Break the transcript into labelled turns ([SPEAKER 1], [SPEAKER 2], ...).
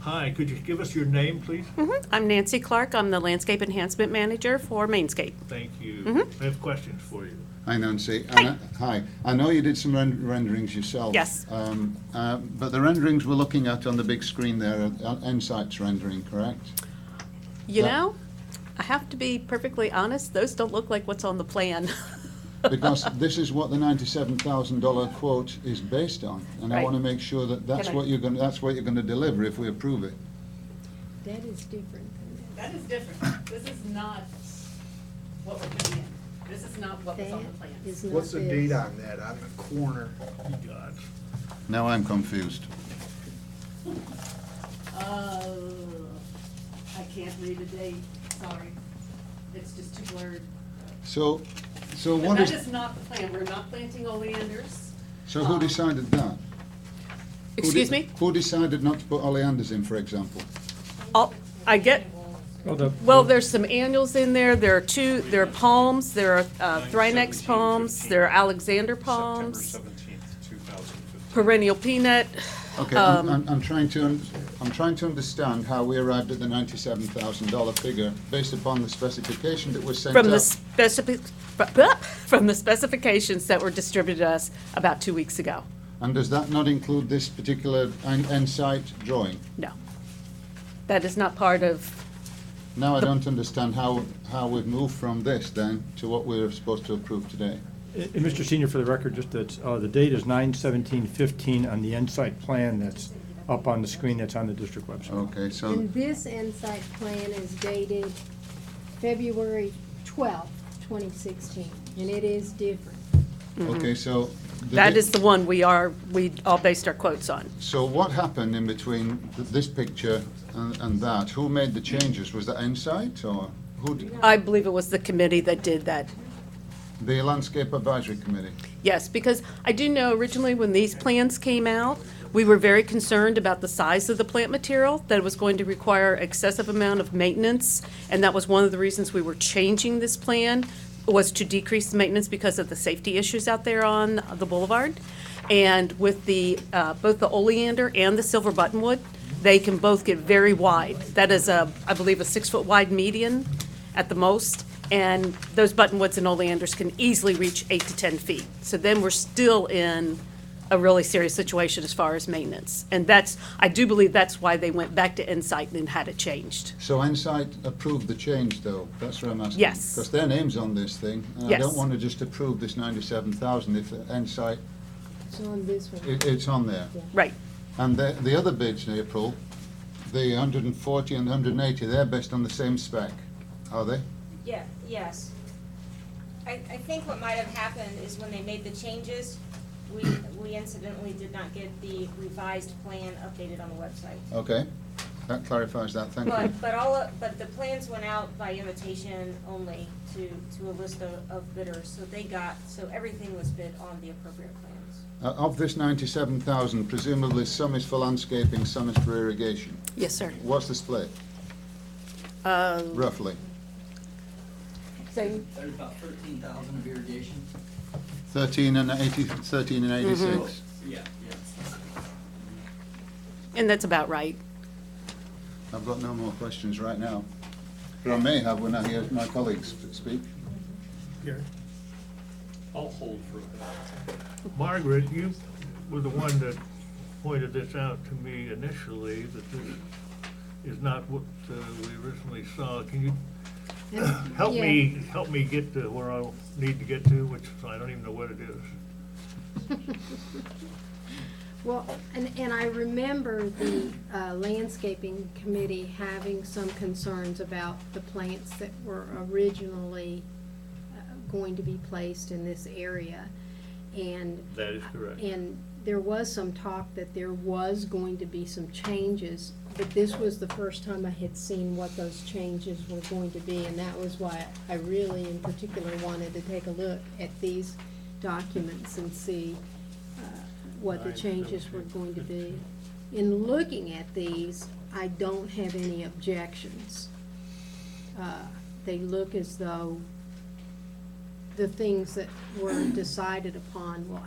[SPEAKER 1] Hi, could you give us your name, please?
[SPEAKER 2] Mhm. I'm Nancy Clark. I'm the Landscape Enhancement Manager for Mainscape.
[SPEAKER 1] Thank you. I have questions for you.
[SPEAKER 3] Hi Nancy. I kno- Hi. I know you did some ren- renderings yourself.
[SPEAKER 2] Yes.
[SPEAKER 3] Um, uh, But the renderings we're looking at on the big screen there are uh, Ensight's rendering, correct?
[SPEAKER 2] You
[SPEAKER 3] Yeah.
[SPEAKER 2] know, I have to be perfectly honest, those don't look like what's on the plan.
[SPEAKER 3] Because this is what the ninety-seven thousand dollar quote is based on. And I
[SPEAKER 2] Right.
[SPEAKER 3] want to make sure that that's
[SPEAKER 2] Can I-
[SPEAKER 3] what you're going, to that's what you're going to deliver if we approve it.
[SPEAKER 4] That is different.
[SPEAKER 2] That is different. This is not what we're putting in. This is not what
[SPEAKER 4] That is not
[SPEAKER 5] What's the
[SPEAKER 4] this.
[SPEAKER 5] date on that, on the corner?
[SPEAKER 1] You got
[SPEAKER 3] Now I'm confused.
[SPEAKER 2] Uh, I can't read the date, sorry. It's just too blurred.
[SPEAKER 3] So, so
[SPEAKER 2] But
[SPEAKER 3] what
[SPEAKER 2] that
[SPEAKER 3] is,
[SPEAKER 2] is not the plan. We're not planting oleanders.
[SPEAKER 3] so who
[SPEAKER 2] um,
[SPEAKER 3] decided that? Who de-
[SPEAKER 2] Excuse me?
[SPEAKER 3] Who decided not to put oleanders in, for example?
[SPEAKER 2] Oh, I get,
[SPEAKER 6] uh,
[SPEAKER 2] well, there's some annuals in there, there are two, there are palms, there are uh, Thrynax palms, there are Alexander palms,
[SPEAKER 7] September 17th, 2015.
[SPEAKER 2] perennial peanut. um,
[SPEAKER 3] Okay, I'm, I'm, I'm trying to, un- I'm trying to understand how we arrived at the ninety-seven thousand dollar figure based upon the specification that was sent out.
[SPEAKER 2] From the specific, from the specifications that were distributed to us about two weeks ago.
[SPEAKER 3] And does that not include this particular en- end site drawing?
[SPEAKER 2] No. That is not part of,
[SPEAKER 3] Now I don't understand how, how we've moved from this then to what we're supposed to approve today.
[SPEAKER 6] And and Mr. Senior, for the record, just that, uh, the date is nine seventeen fifteen on the Insight plan that's up on the screen that's on the district website.
[SPEAKER 3] Okay, so,
[SPEAKER 4] And this insight plan is dated February twelfth, twenty sixteen, and it is different.
[SPEAKER 3] okay, so. the
[SPEAKER 2] Mm-hmm. that
[SPEAKER 3] di-
[SPEAKER 2] is the one we are, we all based our quotes on.
[SPEAKER 3] So what happened in between th- this picture and, and that? Who made the changes? Was that end site or who, d-
[SPEAKER 2] I believe it was the committee that did that.
[SPEAKER 3] the landscape advisory committee?
[SPEAKER 2] Yes, because I do know originally when these plans came out, we were very concerned about the size of the plant material, that it was going to require excessive amount of maintenance, and that was one of the reasons we were changing this plan, was to decrease the maintenance because of the safety issues out there on the boulevard. And with the, uh, both the oleander and the silver buttonwood, they can both get very wide. That is a, I believe, a six-foot wide median at the most, and those buttonwoods and oleanders can easily reach eight to 10 feet. So then we're still in a really serious situation as far as maintenance. And that's, I do believe that's why they went back to Insight and had it changed.
[SPEAKER 3] So Insight approved the change, though, that's what I'm asking.
[SPEAKER 2] Yes.
[SPEAKER 3] Because their name's on this thing, and I
[SPEAKER 2] Yes.
[SPEAKER 3] don't want to just approve this ninety-seven thousand if Insight,
[SPEAKER 4] It's on this one.
[SPEAKER 3] it, it's on there.
[SPEAKER 2] Right,
[SPEAKER 3] And the, the other bids in April, the hundred and forty and hundred and eighty, they're based on the same spec, are they?
[SPEAKER 8] Yeah, yes. I, I think what might have happened is when they made the changes, we, we incidentally did not get the revised plan updated on the website.
[SPEAKER 3] Okay, that clarifies that, thank you.
[SPEAKER 8] But, but all, of- but the plans went out by invitation only to, to a list of- of bidders, so they got, so everything was bid on the appropriate plans.
[SPEAKER 3] Uh, Of this ninety-seven thousand, presumably some is for landscaping, some is for irrigation.
[SPEAKER 2] yes, sir.
[SPEAKER 3] What's the split,
[SPEAKER 2] Uh,
[SPEAKER 3] roughly?
[SPEAKER 2] So
[SPEAKER 9] There's about thirteen thousand of irrigation.
[SPEAKER 3] Thirteen and eighty, thirteen and
[SPEAKER 2] Mm-hmm.
[SPEAKER 3] eighty-six?
[SPEAKER 9] Yeah. Yes.
[SPEAKER 2] And that's about right.
[SPEAKER 3] I've got no more questions right now, but I may have when I hear my colleagues speak.
[SPEAKER 1] Gary? I'll hold for that. Margaret, you were the one that pointed this out to me initially, that this is not what uh, we originally saw. Can you help me, help me get to where I need to get to, which I don't even know what it is?
[SPEAKER 4] Well, and, and I remember the uh, landscaping committee having some concerns about the plants that were originally uh, going to be placed in this area. And
[SPEAKER 1] That is correct.
[SPEAKER 4] And there was some talk that there was going to be some changes, but this was the first time I had seen what those changes were going to be, and that was why I really in particular wanted to take a look at these documents and see uh, what the
[SPEAKER 1] Nine,
[SPEAKER 4] changes were
[SPEAKER 1] seventeen,
[SPEAKER 4] going to be. In looking at these, I don't have any objections. Uh, They look as though the things that were decided upon will